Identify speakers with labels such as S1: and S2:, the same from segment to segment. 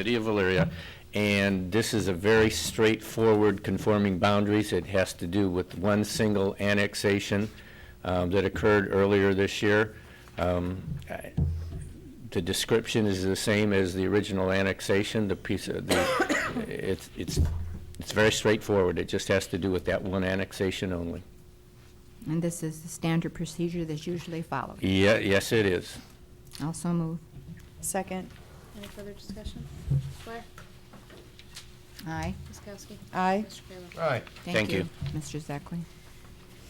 S1: City of Valeria, and this is a very straightforward conforming boundaries. It has to do with one single annexation um, that occurred earlier this year. Um, I- The description is the same as the original annexation, the piece of, the, it's, it's, it's very straightforward. It just has to do with that one annexation only.
S2: And this is the standard procedure that's usually followed.
S1: Yeah, yes, it is.
S2: Also move.
S3: Second.
S4: Any further discussion? Blair?
S2: Aye.
S4: Ms. Kowski?
S3: Aye.
S4: Mr. Kayla?
S5: Aye.
S1: Thank you.
S2: Mr. Zekley.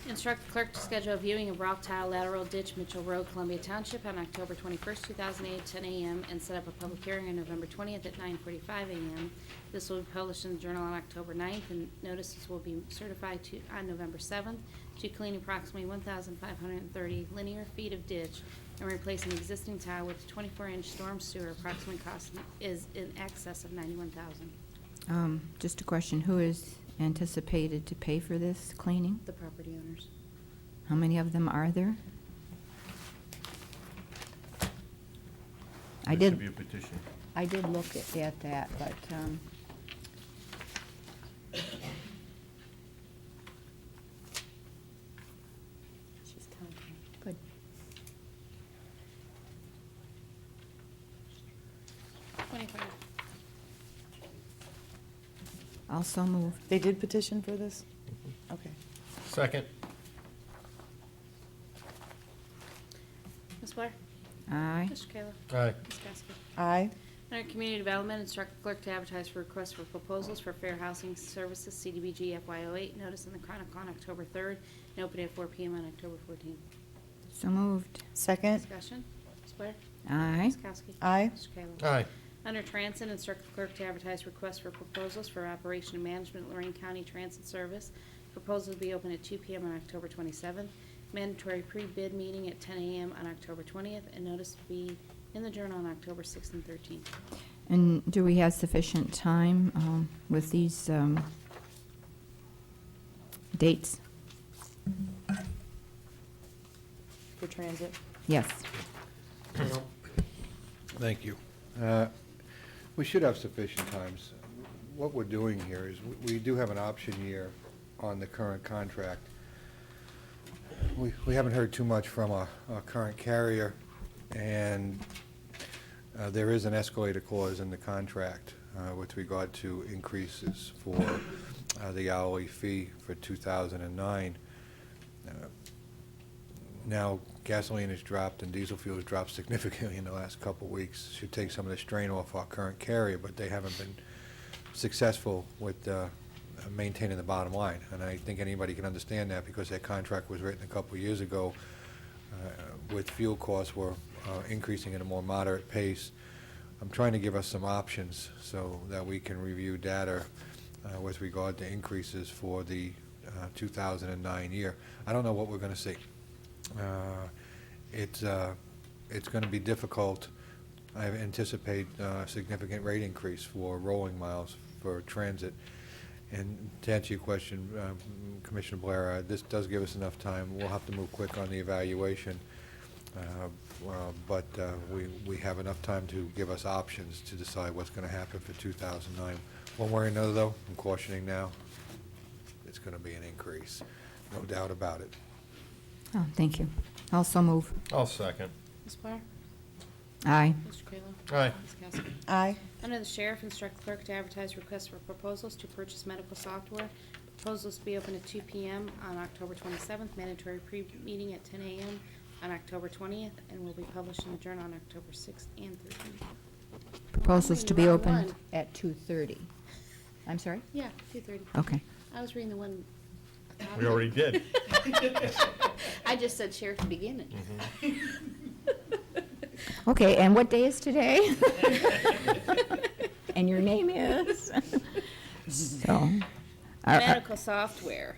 S4: Instruct the clerk to schedule a viewing of rock tile lateral ditch Mitchell Road, Columbia Township on October 21st, 2008, 10 a.m. and set up a public hearing on November 20th at 9:45 a.m. This will be published in the Journal on October 9th and notices will be certified to, on November 7th to clean approximately 1,530 linear feet of ditch and replace an existing tile with 24-inch storm sewer. Approximate cost is in excess of 91,000.
S2: Um, Just a question, who is anticipated to pay for this cleaning?
S4: The property owners.
S2: How many of them are there? I
S5: There should be a
S2: did,
S5: petition.
S2: I did look at- at that, but, um,
S4: She's counting.
S2: good.
S4: Twenty-five.
S2: Also move.
S3: They did petition for this? Okay.
S5: Second.
S4: Ms. Blair?
S2: Aye.
S4: Mr. Kayla?
S5: Aye.
S4: Ms. Kowski?
S3: Aye.
S4: Under Community Development, instruct the clerk to advertise for requests for proposals for Fair Housing Services CDBG FY08, notice in the Chronicle on October 3rd, and open at 4 PM on October 14th.
S2: So moved.
S3: Second.
S4: Discussion, Ms. Blair?
S2: Aye.
S4: Ms. Kowski?
S3: Aye.
S4: Mr. Kayla?
S5: Aye.
S4: Under Transit, instruct the clerk to advertise requests for proposals for operation and management of Lorraine County Transit Service. Proposals will be open at 2 PM on October 27th. Mandatory pre-bid meeting at 10 AM on October 20th, and notice to be in the Journal on October 6th and 13th.
S2: And do we have sufficient time um, with these um, dates?
S3: For transit.
S2: Yes.
S6: Thank you. Uh, We should have sufficient times. What we're doing here is, we- we do have an option year on the current contract. We we haven't heard too much from our our current carrier, and uh, there is an escalator clause in the contract uh, with regard to increases for uh, the hourly fee for 2009. Uh, now gasoline has dropped and diesel fuel has dropped significantly in the last couple of weeks. Should take some of the strain off our current carrier, but they haven't been successful with uh, maintaining the bottom line. And I think anybody can understand that because their contract was written a couple of years ago uh, with fuel costs were uh, increasing at a more moderate pace. I'm trying to give us some options so that we can review data uh, with regard to increases for the uh, 2009 year. I don't know what we're going to see. Uh, It's, uh, it's going to be difficult. I anticipate uh, significant rate increase for rolling miles for transit. And to answer your question, um, Commissioner Blair, uh, this does give us enough time. We'll have to move quick on the evaluation. uh, uh, But uh, we, we have enough time to give us options to decide what's going to happen for 2009. One way or another, though, I'm cautioning now, it's going to be an increase, no doubt about it.
S2: Oh, thank you. Also move.
S5: I'll second.
S4: Ms. Blair?
S2: Aye.
S4: Mr. Kayla?
S5: Aye.
S4: Ms. Kowski?
S3: Aye.
S4: Under the sheriff, instruct clerk to advertise requests for proposals to purchase medical software. Proposals to be open at 2 PM on October 27th, mandatory pre-meeting at 10 AM on October 20th, and will be published in the Journal on October 6th and 13th.
S2: Proposals to be
S4: Wrong
S2: opened
S4: one.
S2: at 2:30. I'm sorry?
S4: Yeah, 2:30.
S2: Okay.
S4: I was reading the one.
S5: We already did.
S4: I just said sheriff to begin it.
S2: Okay, and what day is today? And your name is? So, uh, are- are-
S4: medical software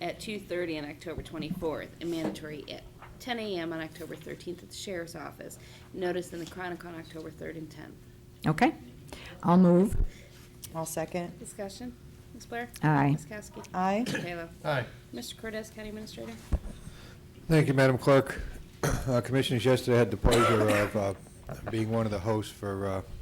S4: at 2:30 on October 24th and mandatory at 10 a.m. on October 13th at the sheriff's office. Notice in the Chronicle on October 3rd and 10th.
S2: okay, I'll move.
S3: I'll second.
S4: Discussion, Ms. Blair?
S2: Aye.
S4: Ms. Kowski?
S3: Aye.
S4: Mr. Kayla?
S5: Aye.
S4: Mr. Cortez, County Administrator?
S6: Thank you, Madam Clerk. Uh, Commissioners, yesterday I had the pleasure of uh, being one of the hosts for uh,